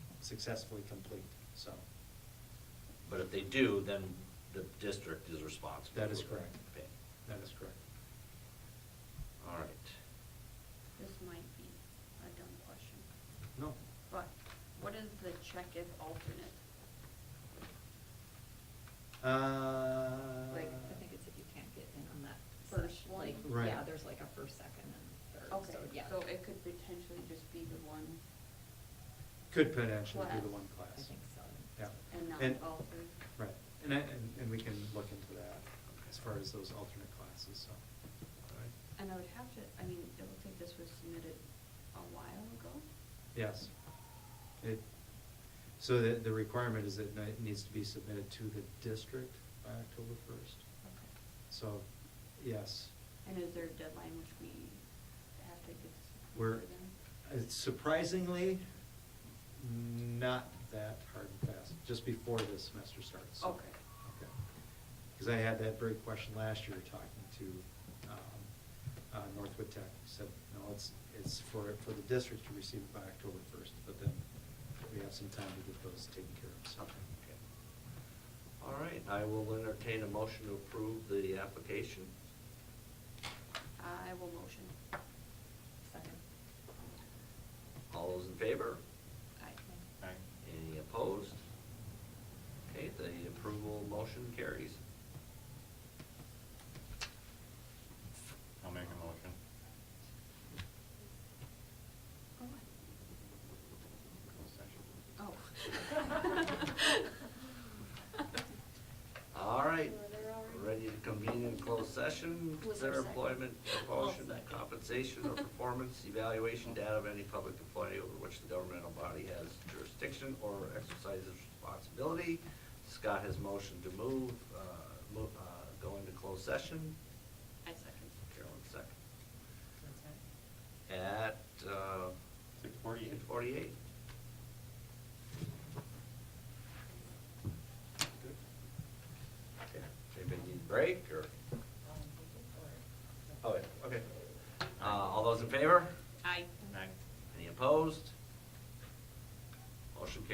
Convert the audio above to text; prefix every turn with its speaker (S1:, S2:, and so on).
S1: successfully complete, so.
S2: But if they do, then the district is responsible.
S1: That is
S2: for
S1: correct.
S2: paying.
S1: That is correct.
S2: All right.
S3: This might be a dumb question,
S1: No,
S3: but what is the check if alternate?
S1: uh.
S4: Like, I think it's if you can't get in on that
S3: First
S4: first,
S3: one.
S4: like,
S1: Right.
S4: yeah, there's like a first, second, and third, so, yeah.
S3: So it could potentially just be the one
S1: Could potentially be the
S3: Class.
S1: one
S4: I
S1: class.
S4: think so.
S1: Yeah.
S3: and not
S1: And-
S3: all three?
S1: Right, and, I- and, and we can look into that as far as those alternate classes, so. all right.
S3: And I would have to, I mean, it looks like this was submitted a while ago.
S1: Yes. It, so the, the requirement is that it needs to be submitted to the district by October first.
S3: Okay.
S1: So, yes,
S3: And is there a deadline which we have to get? this
S1: we're,
S3: before then?
S1: it's surprisingly, not that hard and fast, just before the semester starts. so-
S3: Okay.
S1: Okay. Because I had that very question last year talking to um, uh, Northwood Tech. He Said, no, it's, it's for, for the district to receive it by October first, but then we have some time to get those taken care of, so.
S2: Okay. All right, I will entertain a motion to approve the application.
S3: I will motion.
S4: Second.
S2: All those in favor?
S3: Aye.
S2: Any opposed? Okay, the approval motion carries.
S5: I'll make a motion.
S3: Oh,
S5: Closed session.
S3: I- Oh.
S2: All right,
S3: Were there already?
S2: ready to convene in closed session,
S3: Was
S2: consider
S3: there a second?
S2: employment, promotion,
S3: I'll second.
S2: compensation, or performance evaluation data of any public employee over which the governmental body has jurisdiction or exercises responsibility. Scott has motioned to move, uh, move, uh, go into closed session.
S3: I second.
S2: Carolyn second. At, uh.
S5: Six forty-eight.
S2: Six forty-eight. Okay, Anybody need a break, or? Oh, yeah, okay. Uh, all those in favor?
S3: Aye.
S5: Aye.
S2: Any opposed? Motion carries.